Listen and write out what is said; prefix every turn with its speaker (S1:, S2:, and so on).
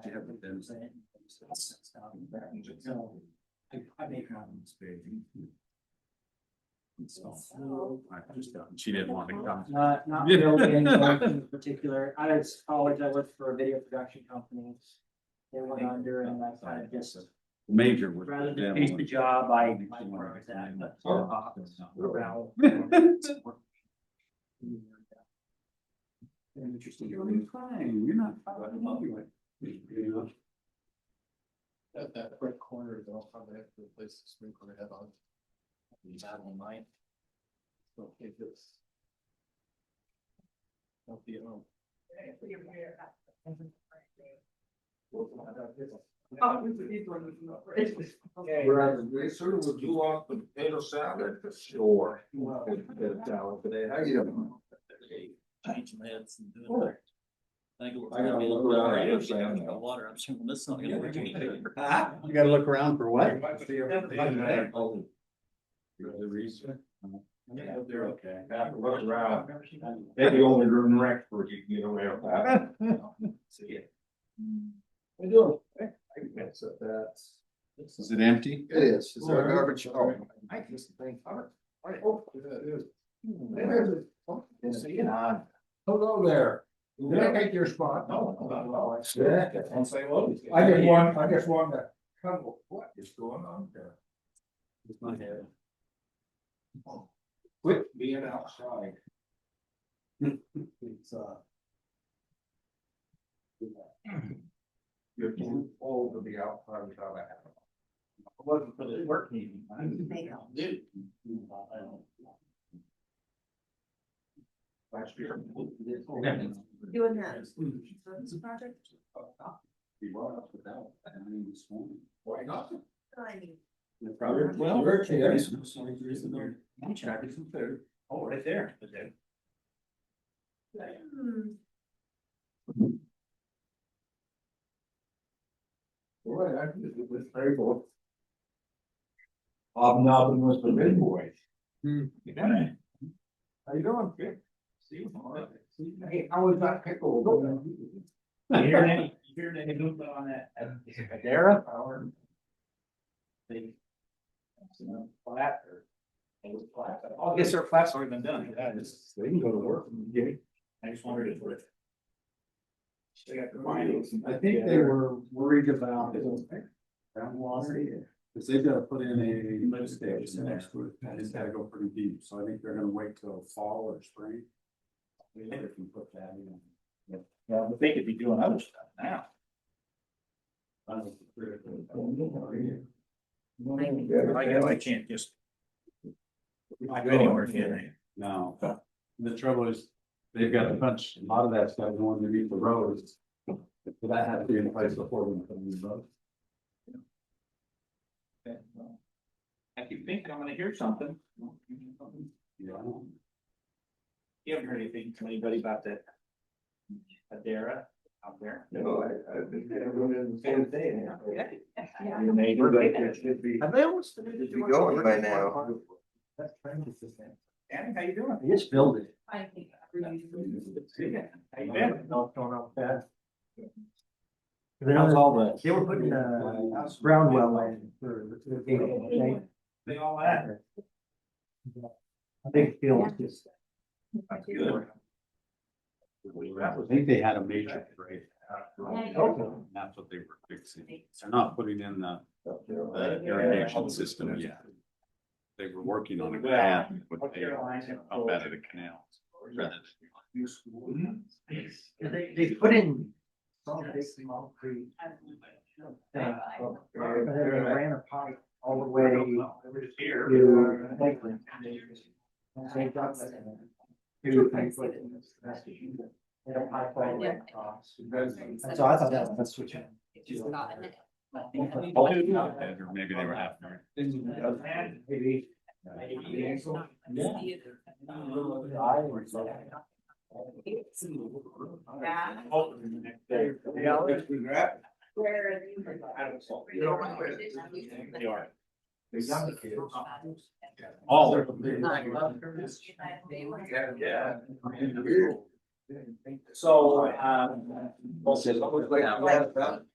S1: to have with them. So, I, I make comments. So,
S2: I just don't- She didn't want to come.
S1: Not, not really any work in particular. Out of college, I worked for a video production company. They went under and I kind of just,
S2: Major was.
S1: rather than face the job, I, I worked at that. but, uh, around.
S2: Interesting. You're doing fine. You're not. fine. You
S3: That, that red corner, they'll probably have to replace the sprinkler head on. Battle line. So if it's. Don't be at home.
S4: Brad, they sort of would do off the potato salad, sure. today, how you doing?
S3: Change my heads and do it. I think it looks-
S4: I gotta look around.
S3: I don't think I'm gonna Water, I'm sure this is not gonna work. either.
S2: gotta look around for what?
S4: Oh. You're the reason.
S3: Yeah,
S4: They're okay. Have to look around. They're the only room rec where you can get away with that.
S3: So, yeah.
S4: I do. That's, that's.
S2: Is it empty?
S4: It is. Is
S3: there
S4: garbage?
S3: Oh.
S4: I can just think. Oh, it on. Hello there. Did I take your spot? No. Yeah. And say, well. I just want, I just want to couple. What is going on there? Quit being outside. It's, uh. You're too old to be outside without a hat. on.
S3: It wasn't for the work meeting. I didn't think I'll do.
S4: Last year.
S5: Doing that. project?
S2: Be brought up without, I mean, this morning.
S4: Why not?
S5: I mean,
S2: Robert,
S4: Well, we're here.
S2: there's no sign, there isn't there? I'm trying to compare.
S3: Oh, right there.
S5: hmm,
S4: Boy, I did it with very both. Bob Nobbin was the big boy.
S2: Hmm.
S4: Yeah. How you doing, Dick? See you tomorrow. Hey, how was that pickle?
S3: Hearing any, hearing any movement on that, uh, Adara or? The. uh, Flat or. It was flat. Oh, yes, sir, flat's already been done. Yeah, it's-
S4: They can go to work.
S3: I just wondered if it. They got the findings.
S2: I think they were worried about groundwater, because they've got to put in a lift station next to it, and it's gotta go pretty deep, so I think they're gonna wait till fall or spring. They never can put that in.
S3: Yeah, but they could be doing other stuff now.
S2: That's the critical.
S3: I guess I can't just. Not anywhere, can
S2: No, the trouble is, they've got a bunch, a lot of that stuff going underneath the roads. So that had to be in place before we put in the road.
S3: I? I keep thinking I'm gonna hear something.
S2: Yeah.
S3: You haven't heard anything from anybody about that? Adara out there?
S4: No, I, I've been there, went in the same thing.
S3: Your neighbor?
S4: should be.
S1: Have they almost finished?
S4: Be going by now.
S3: Danny, how you doing?
S1: They just build it.
S5: I think. every user-
S3: Yeah. How you
S1: No,
S3: been?
S1: no, no, that.
S2: How's all that?
S1: They were putting, uh, brown well in for, for the game.
S3: They all that?
S1: I think Phil was just. uh,
S3: Good.
S2: I think they had a major break.
S1: Oh,
S2: That's what they were fixing. They're not putting in the the irrigation system yet. They were working on a pad, but they up out of the canal. rather
S3: Oh.
S1: They, they put in. Some big concrete thing, and then they ran a pipe all the way to Lakeland. And they got that. Two things like. They don't pipe all the way across. And so I thought that was, that's switching.
S5: Just not in it.
S2: than- Or maybe they were half.
S1: Maybe.
S5: Yeah. Where are you?
S3: They are.
S5: Oh,
S2: All of
S4: Yeah.
S3: So, um.
S4: uh, um, Well, it's almost like-